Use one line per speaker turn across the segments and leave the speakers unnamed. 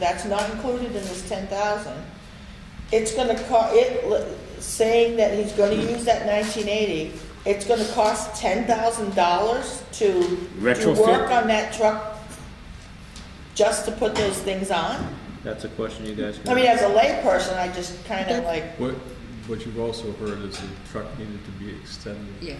that's not included in this ten thousand. It's gonna co, it, saying that he's gonna use that nineteen eighty, it's gonna cost ten thousand dollars to do
Retrofit?
work on that truck just to put those things on?
That's a question you guys
I
can
mean, as
ask.
a layperson, I just kinda like,
What, what you've also heard is the truck needed to be extended.
Yeah,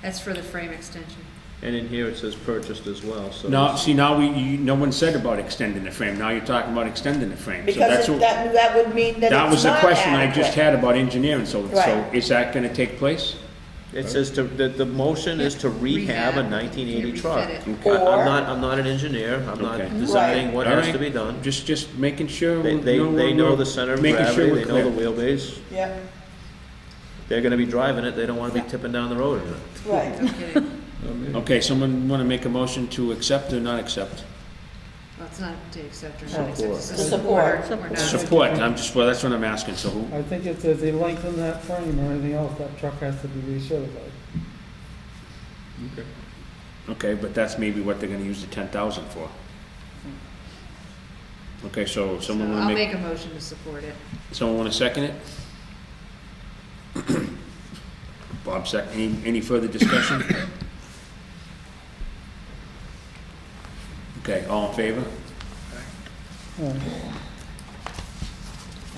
that's for the frame extension.
And in here it says purchased as well, so.
No, see, now we, you, no one said about extending the frame, now you're talking about extending the frame, so
because
that's
it-
what,
that, that would mean that it's
that was the
not
question I just
adequate.
had about engineering, so, so
Right.
is that gonna take place?
It says to, the, the motion is to rehab a nineteen eighty
Refit
truck.
it.
I-
Or-
I'm not, I'm not an engineer, I'm not
Okay.
designing what
All
has
right.
to be done.
Just, just making sure.
They,
we're-
they,
no,
they
we're-
know
we're
the center of
making sure
gravity,
we're
they know the
clear.
wheelbase,
Yeah,
they're gonna be driving it, they don't wanna be tipping down the road in it.
right.
No kidding.
Um,
Okay, someone wanna make a motion to accept or not accept?
Well, it's not to accept or not accept,
Support.
it's to
Support.
support or not.
Support, I'm just, well, that's what I'm asking, so who,
I think if they lengthen that frame or anything else, that truck has to be recertified.
okay.
okay, but that's maybe what they're gonna use the ten thousand for. Okay, so
Hmm. So
someone
I'll
wanna make,
make a motion to support it.
someone wanna second it? Bob second, any, any further discussion? Okay, all in favor?
Uh,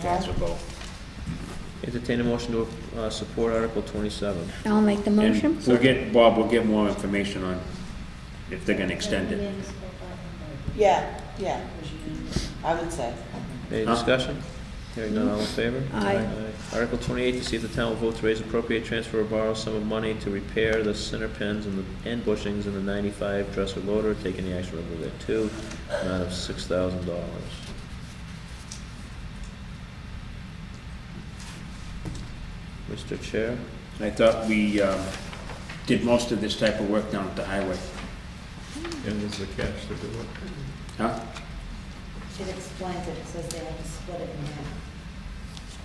That's a vote.
Entertain a motion to, uh, support Article twenty-seven.
I'll make the
And
motion.
We'll get, Bob, we'll get more information on if they're gonna extend it.
Yeah, yeah, I would say.
Any
Huh?
discussion? Hearing none, all in favor?
Aye.
Article twenty-eight, to see if the town will vote to raise appropriate transfer or borrow sum of money to repair the center pins and the end bushings in the ninety-five dresser loader, taking the action removed at two, amount of six thousand dollars. Mr. Chair,
I thought we um, did most of this type of work down at the highway.
And there's the cash to do it.
Huh?
It explains it, it says they have to split it in half.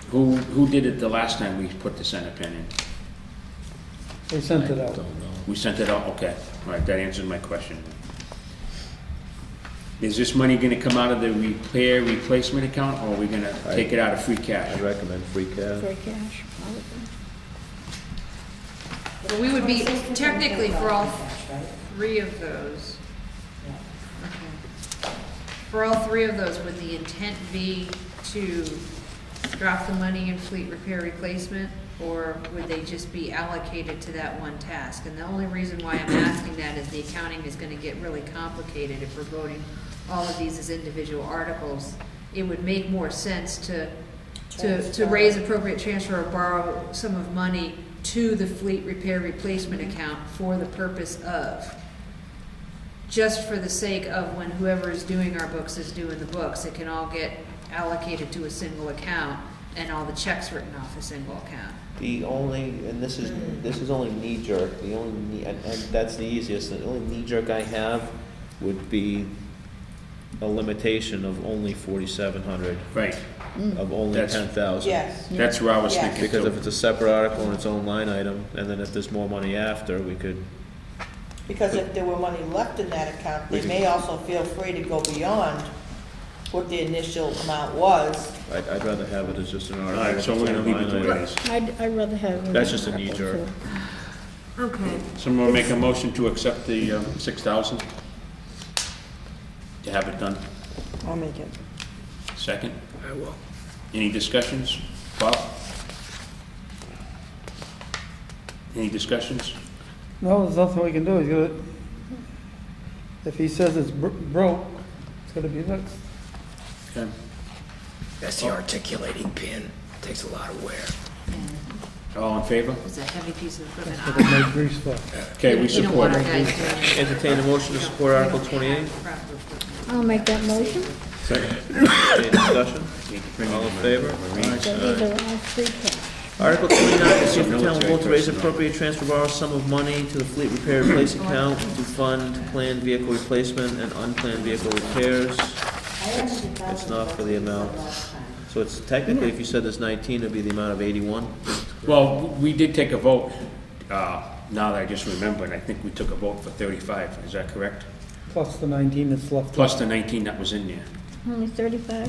Who, who did it the last time we put the center pin in?
They sent it out.
We sent it out, okay. All right, that answers my question. Is this money gonna come out of the repair replacement account, or are we gonna take it out of free
I
cash?
recommend free cash.
Free cash, probably.
Well, we would be technically for all
Cash, right?
three of those.
Yeah.
Okay. For all three of those, would the intent be to drop the money in fleet repair replacement? Or would they just be allocated to that one task? And the only reason why I'm asking that is the accounting is gonna get really complicated if we're voting all of these as individual articles. It would make more sense to, to, to
Transfer.
raise appropriate transfer or borrow sum of money to the fleet repair replacement account for the purpose of just for the sake of when whoever is doing our books is doing the books, it can all get allocated to a single account and all the checks written off a single account.
The only, and this is, this is only knee jerk, the only, knee- and, and that's the easiest, the only knee jerk I have
Would be a limitation of only forty-seven hundred,
Right,
of only
That's-
ten thousand.
Yes,
that's where I was
Yeah.
thinking.
Because
too.
if it's a separate article and its own line item, and then if there's more money after, we could,
because if there were money left in that account, they may also feel free to go beyond what the initial amount was.
I'd, I'd rather have it as just an
All
article.
right, so we're gonna leave it the way it is.
I'd, I'd rather have.
That's just a knee jerk.
Okay.
Someone will make a motion to accept the um, six thousand? To have it done?
I'll make it.
Second? I will. Any discussions? Bob? Any discussions?
No, there's nothing we can do, he's gonna, if he says it's bro- broke, it's gonna be fixed.
Okay.
That's the articulating pin. Takes a lot of wear.
All in favor?
It's a heavy piece of equipment.
Look at my grease stuff.
Okay, we
You don't want
support
our
it.
guys doing.
Entertain a motion to support Article twenty-eight,
Proper equipment.
I'll make that motion.
any discussion? All in favor?
So these are all free cash.
Article twenty-nine, to see if the town will vote to raise appropriate transfer borrow sum of money to the fleet repair replace account to fund planned vehicle replacement and unplanned vehicle repairs.
I actually thought
It's
it
not
was
for the amount.
last time.
So it's technically, if you said it's nineteen, it'd be the amount of eighty-one.
Well, we did take a vote, uh, now that I just remembered, I think we took a vote for thirty-five, is that correct?
Plus the nineteen that's left.
Plus the nineteen that was in there.
only thirty-five.